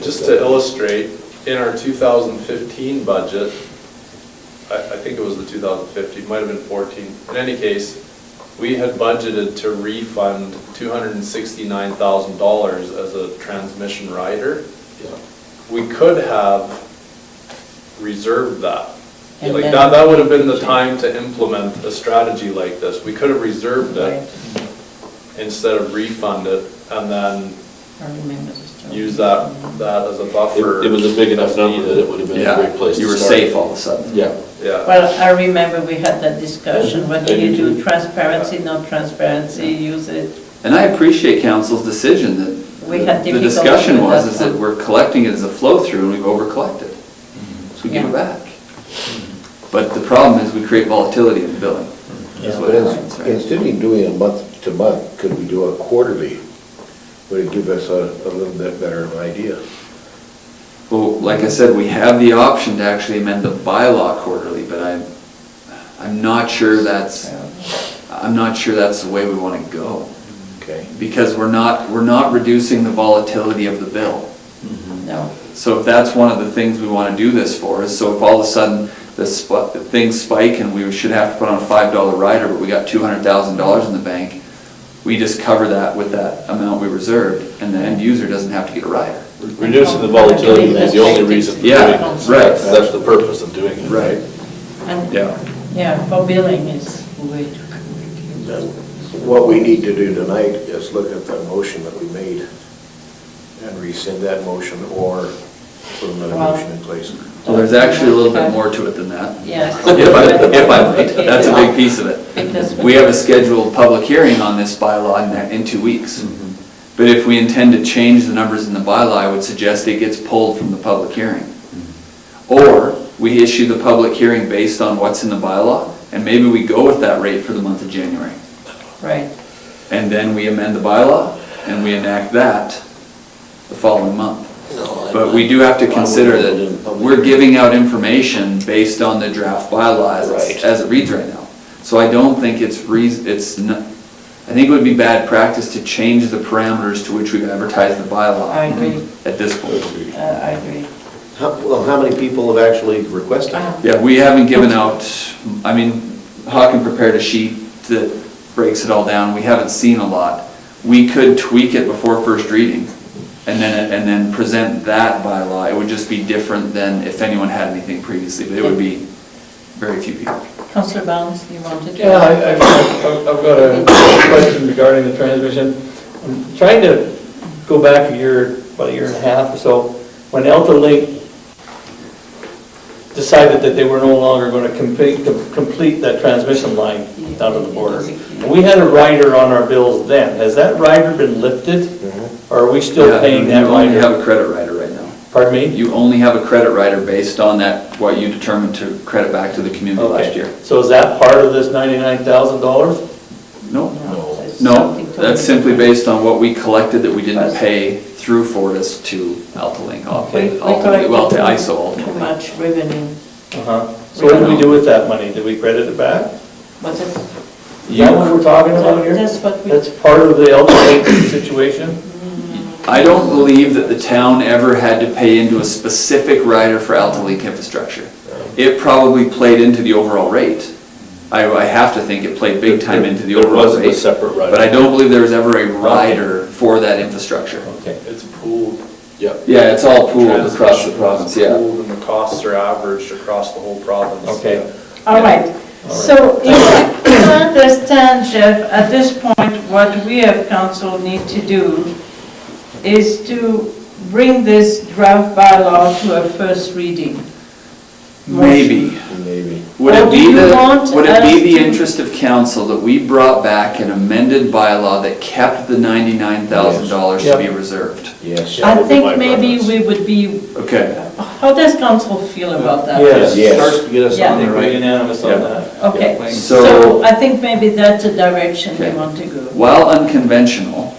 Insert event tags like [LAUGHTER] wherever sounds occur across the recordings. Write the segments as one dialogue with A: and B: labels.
A: Just to illustrate, in our 2015 budget, I, I think it was the 2015, might have been 14. In any case, we had budgeted to refund $269,000 as a transmission rider. We could have reserved that.
B: And
A: Like,
B: then-
A: that, that would have been the time to implement a strategy like this. We could have reserved
B: Right.
A: it instead of refund it and then
B: I remember this.
A: use that, that as a buffer.
C: It it was a big enough number that it would have been a great place to start.
D: You were safe all of a sudden.
C: Yeah.
A: Yeah,
B: Well, I remember we had that discussion, whether you do transparency, not transparency, use it.
D: And I appreciate council's decision that.
B: We had
D: The
B: difficulty
D: discussion
B: with
D: was,
B: that
D: is that
B: one.
D: we're collecting it as a flow-through and we've over-collected. So we give it back. But the problem is we create volatility in the billing.
C: Mm-hmm.
D: That's what
E: But
D: happens,
E: ins-
D: right?
E: instead of doing a month to month, could we do a quarterly? Would it give us a, a little bit better of an idea?
D: Well, like I said, we have the option to actually amend the bylaw quarterly, but I'm, I'm not sure that's, I'm not sure that's the way we want to go.
E: Okay?
D: Because we're not, we're not reducing the volatility of the bill.
B: No,
D: So if that's one of the things we want to do this for, is so if all of a sudden the sp- the things spike and we should have to put on a five dollar rider, but we got two hundred thousand dollars in the bank, we just cover that with that amount we reserved, and the end user doesn't have to get a rider.
C: Reducing the volatility is the only reason for doing
D: Yeah,
C: it.
D: right.
C: That's the purpose of doing it.
B: and,
D: Yeah.
B: yeah, for billing is way too complicated.
E: Then What we need to do tonight is look at the motion that we made and rescind that motion or put another
B: Well-
E: motion in place.
D: Well, there's actually a little bit more to it than that.
B: Yes.
D: [LAUGHS] If I, if I might, that's a big piece of
B: Because-
D: it. We have a scheduled public hearing on this bylaw in, that- in two weeks. But if we intend to change the numbers in the bylaw, I would suggest it gets pulled from the public hearing. Or we issue the public hearing based on what's in the bylaw, and maybe we go with that rate for the month of January.
B: Right,
D: And then we amend the bylaw, and we enact that the following month. But we do have to consider that we're giving out information based on the draft bylaw as it's- as it reads right now. So I don't think it's reas, it's, n- I think it would be bad practice to change the parameters to which we've advertised the
B: I
D: bylaw
B: agree,
D: at this point.
B: uh, I agree.
F: How, well, how many people have actually requested?
B: Uh,
D: Yeah, we haven't given out, I mean, Hawken prepared a sheet that breaks it all down, we haven't seen a lot. We could tweak it before first reading, and then, and then present that bylaw, it would just be different than if anyone had anything previously, but it would be very few people.
B: Councillor Barnes, you wanted to?
G: Yeah, I- I've I've- I've got a question regarding the transmission. I'm trying to go back a year, about a year and a half or so, when Elta Link decided that they were no longer going to complete, complete that transmission line down to the border. We had a rider on our bills then. Has that rider been lifted? Or are we still
D: Yeah,
G: paying that
D: You only have
G: rider?
D: a credit rider right now.
G: Pardon me?
D: You only have a credit rider based on that, what you determined to credit back to the community Oh, last
G: Okay.
D: year.
G: So is that part of this $99,000?
D: No,
B: it's
D: No,
B: something totally
D: that's simply
B: different.
D: based on what we collected that we didn't
B: Us.
D: pay through Fortis to AltaLink,
G: We-
D: ultimately,
B: We- we collected
D: well, to ISO
B: Too
D: ultimately.
B: much revenue,
G: Uh-huh. So what did we do with that money? Did we credit it back?
B: but it's.
G: Is that what we're talking about here?
B: That's what we,
G: That's part of the elderly situation?
D: I don't believe that the town ever had to pay into a specific rider for AltaLink infrastructure. It probably played into the overall rate. I, I have to think it played big time into the
C: There
D: overall
C: wasn't a
D: rate.
C: separate rider.
D: But I don't believe there was ever a rider for that infrastructure.
G: Okay.
A: it's pooled.
C: Yep.
D: Yeah, it's all pooled across the province, yeah.
A: Pooled and the costs are averaged across the whole province.
G: Okay.
B: all right, so if I- if I understand, Jeff, at this point, what we as council need to do is to bring this draft bylaw to a first reading.
D: Maybe.
E: Maybe.
D: Would
B: Or
D: it
B: do
D: be
B: Oh, you
D: the,
B: want
D: would it
B: us
D: be the
B: to-
D: interest of council that we brought back an amended bylaw that kept the ninety-nine thousand dollars to be
G: Yes.
D: reserved?
E: Yes.
C: Yeah, that
B: I
C: would be my
B: think maybe
C: preference.
B: we would be,
D: Okay,
B: how does council feel about that?
G: Yes.
E: Yes.
F: Starts to get us
B: Yeah.
F: on the right.
G: unanimous
D: Yeah.
G: that.
B: Okay,
D: So-
B: so I think maybe that's the direction we
D: Okay.
B: want to go.
D: while unconventional,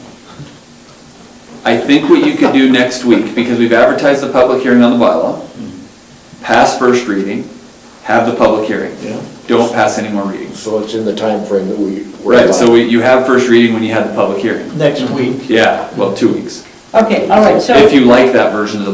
D: I think what you could do next week, because we've advertised the public hearing on the bylaw, pass first reading, have the public hearing.
F: Yeah.
D: Don't pass any more readings.
E: So it's in the time frame that we. were
D: Right, so
E: allowed.
D: we- you have first reading when you had the public hearing.
G: Next week.
D: Yeah, well, two weeks.
B: Okay, all right, so.
D: If you like that version of the